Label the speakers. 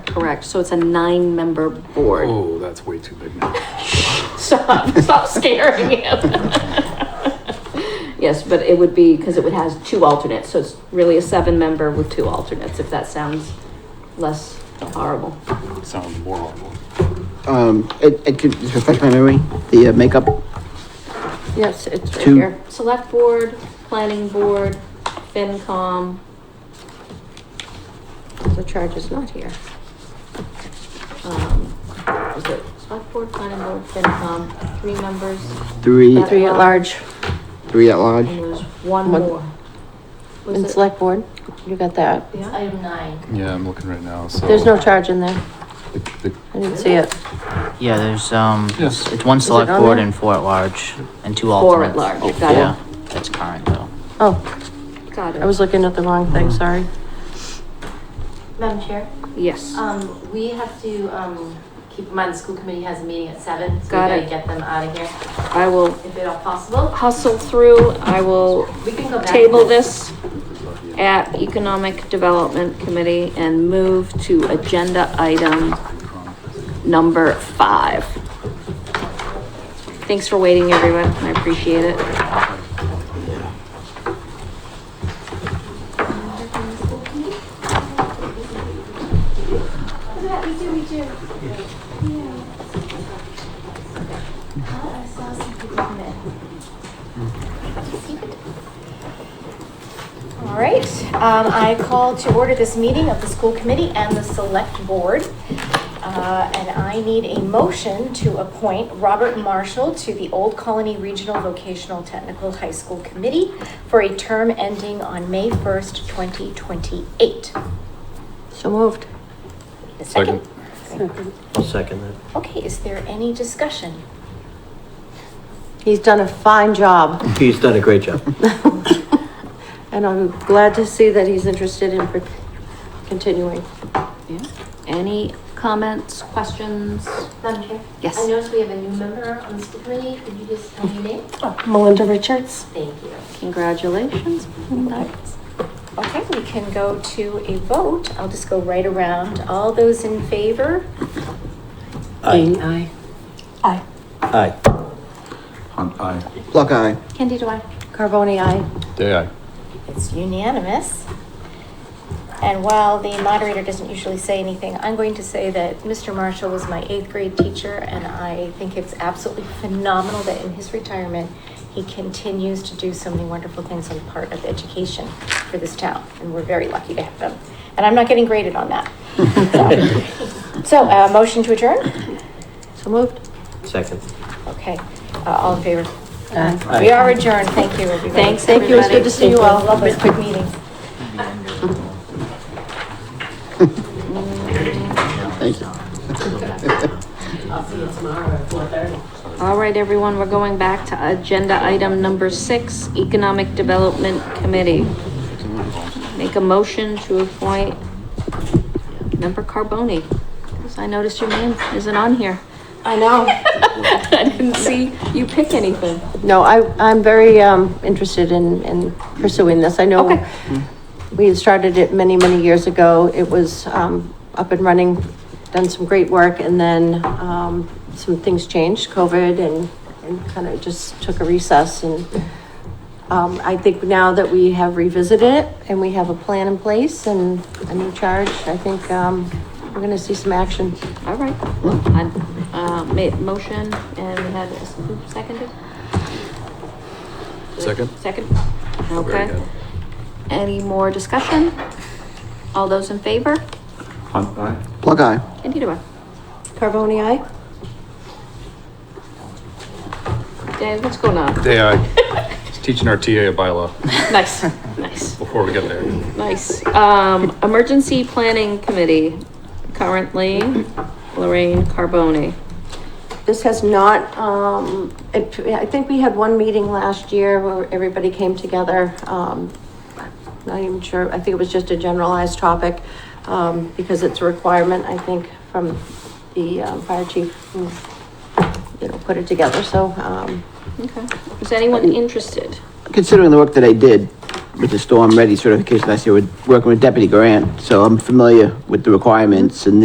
Speaker 1: Correct, so it's a nine-member board.
Speaker 2: Oh, that's way too big now.
Speaker 1: Stop, stop scaring him. Yes, but it would be, because it would has two alternates, so it's really a seven-member with two alternates, if that sounds less horrible.
Speaker 2: Sounds more horrible.
Speaker 3: Um, it, it could just refresh my memory, the uh, makeup,
Speaker 1: Yes, it's right
Speaker 3: Two.
Speaker 1: here. Select Board, Planning Board, FinCom.
Speaker 4: The charge is not here.
Speaker 1: um, Is it Select Board, Planning Board, FinCom, three members,
Speaker 3: three,
Speaker 1: Three at large.
Speaker 3: three at large.
Speaker 1: and there's one
Speaker 4: One.
Speaker 1: more. Was
Speaker 4: And
Speaker 1: it-
Speaker 4: select board, you got that.
Speaker 1: Yeah.
Speaker 5: Item nine.
Speaker 2: Yeah, I'm looking right now, so.
Speaker 4: There's no charge in there.
Speaker 2: The- the-
Speaker 4: I didn't see it.
Speaker 6: Yeah, there's, um,
Speaker 2: Yes.
Speaker 6: it's one
Speaker 4: it
Speaker 6: select
Speaker 4: on
Speaker 6: board
Speaker 4: there?
Speaker 6: and four at large, and two
Speaker 1: Four at
Speaker 6: alternates.
Speaker 1: large, got
Speaker 6: Yeah,
Speaker 1: it,
Speaker 6: that's current though.
Speaker 4: Oh,
Speaker 1: got it.
Speaker 4: I was looking at the wrong thing, sorry.
Speaker 5: Madam Chair,
Speaker 1: Yes,
Speaker 5: um, we have to, um, keep in mind, the school committee has a meeting at seven, so
Speaker 1: Got
Speaker 5: we gotta
Speaker 1: it.
Speaker 5: get them out of here
Speaker 1: I will
Speaker 5: if at all possible.
Speaker 1: hustle through, I will
Speaker 5: We can go back.
Speaker 1: table this at Economic Development Committee and move to agenda item number five. Thanks for waiting, everyone, I appreciate it.
Speaker 7: Yeah, we do, we do. Yeah. I saw some people come in. All right, um, I call to order this meeting of the school committee and the select board. Uh, and I need a motion to appoint Robert Marshall to the Old Colony Regional Vocational Technical High School Committee for a term ending on May first, twenty twenty-eight.
Speaker 4: So moved.
Speaker 7: A second?
Speaker 8: I'll second that.
Speaker 7: Okay, is there any discussion?
Speaker 4: He's done a fine job.
Speaker 8: He's done a great job.
Speaker 4: And I'm glad to see that he's interested in per- continuing.
Speaker 1: Yeah. Any comments, questions?
Speaker 5: Madam Chair?
Speaker 1: Yes.
Speaker 5: I noticed we have a new member on the school committee. Could you just tell me your name?
Speaker 4: Melinda Richards?
Speaker 5: Thank you.
Speaker 1: Congratulations.
Speaker 7: Okay, we can go to a vote. I'll just go right around. All those in favor?
Speaker 8: Aye.
Speaker 4: Aye.
Speaker 7: Aye.
Speaker 8: Aye.
Speaker 2: Hunt eye.
Speaker 3: Block eye,
Speaker 1: Candy, do I?
Speaker 4: Carboni, aye.
Speaker 2: Day eye.
Speaker 7: It's unanimous. And while the moderator doesn't usually say anything, I'm going to say that Mr. Marshall was my eighth grade teacher, and I think it's absolutely phenomenal that in his retirement, he continues to do so many wonderful things on the part of education for this town, and we're very lucky to have him. And I'm not getting graded on that. So- So, uh, motion to adjourn?
Speaker 4: So moved.
Speaker 8: Second.
Speaker 7: Okay, uh, all in favor?
Speaker 8: Aye.
Speaker 7: We are adjourned. Thank you, everybody.
Speaker 1: Thanks,
Speaker 4: Thank you, it's
Speaker 1: everybody.
Speaker 4: good to see you all.
Speaker 7: Love those quick meetings.
Speaker 3: thank you.
Speaker 1: All right, everyone, we're going back to agenda item number six, Economic Development Committee. Make a motion to appoint member Carboni, because I noticed your name isn't on here.
Speaker 4: I know.
Speaker 1: I didn't see you pick anything.
Speaker 4: No, I, I'm very, um, interested in, in pursuing this. I know
Speaker 1: Okay.
Speaker 4: we had started it many, many years ago. It was, um, up and running, done some great work, and then, um, some things changed, COVID, and, and kind of just took a recess. And, um, I think now that we have revisited it and we have a plan in place and a new charge, I think, um, we're gonna see some action.
Speaker 1: All right, I, uh, made motion and we had, who seconded?
Speaker 2: Second.
Speaker 1: Second,
Speaker 2: Very
Speaker 1: okay.
Speaker 2: good.
Speaker 1: Any more discussion? All those in favor?
Speaker 2: Hunt eye.
Speaker 3: Block eye.
Speaker 1: Candy, do I?
Speaker 4: Carboni, aye?
Speaker 1: Dave, what's going on?
Speaker 2: Day eye. He's teaching our TA a bylaw
Speaker 1: Nice, nice.
Speaker 2: before we get there.
Speaker 1: Nice. Um, Emergency Planning Committee, currently Lorraine Carboni.
Speaker 4: This has not, um, it, I think we had one meeting last year where everybody came together. Um, not even sure, I think it was just a generalized topic, um, because it's a requirement, I think, from the, um, fire chief who, you know, put it together, so, um,
Speaker 1: Okay. Is anyone interested?
Speaker 3: Considering the work that I did with the storm ready certification last year, with working with Deputy Grant, so I'm familiar with the requirements and